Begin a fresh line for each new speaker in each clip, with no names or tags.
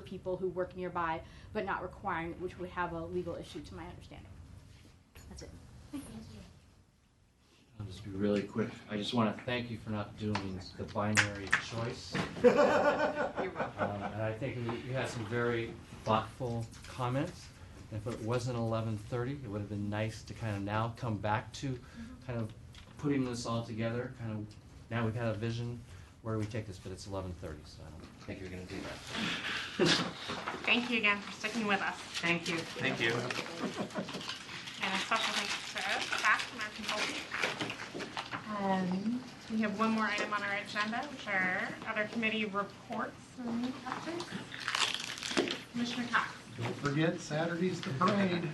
people who work nearby, but not requiring, it, which would have a legal issue to my understanding. That's it.
I'll just be really quick. I just want to thank you for not doing the binary choice. Um, And I think we- you had some very thoughtful comments. And If it wasn't eleven thirty, it would have been nice to kind of now come back to kind of putting this all together, kind of, now we've had a vision where do we take this, but it's eleven thirty, so I don't think you're gonna do that.
Thank you again for sticking with us. Thank you.
Thank you.
And a special thanks to staff and our consultants. Um, We have one more item on our agenda, which are other committee reports and updates. Commissioner Cox.
Don't forget, Saturday's the parade.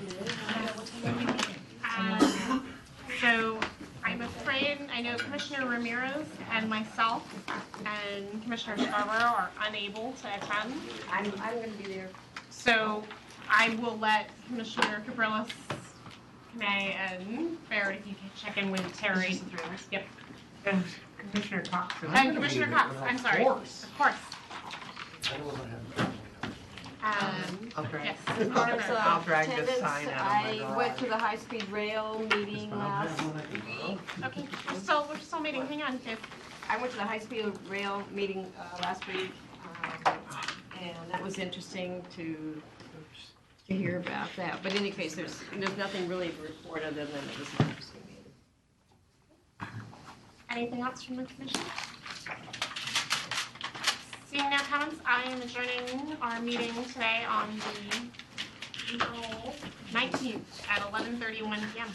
Um, So I'm afraid, I know Commissioner Ramirez and myself and Commissioner Scarborough are unable to attend.
I'm, I'm gonna be there.
So I will let Commissioner Cabrillas, May, and Barrett, if you can check in with Terry. Yep. And Commissioner Cox.
I'm
And
gonna be
Commissioner
there,
Cox,
of
I'm sorry.
course.
Of course. Um,
I'll drag,
yes.
I'll drag this
Attendance,
sign out of my
I went
garage.
to the high-speed rail meeting last,
Okay, we're still, we're still meeting, hang on, Tiff.
I went to the high-speed rail meeting uh, last week, um, and that was interesting to, to hear about that. But in any case, there's, there's nothing really to report other than it was an interesting meeting.
Anything else from the commission? Seeing no comments, I am adjourning our meeting today on the April 19th at 11:31 PM.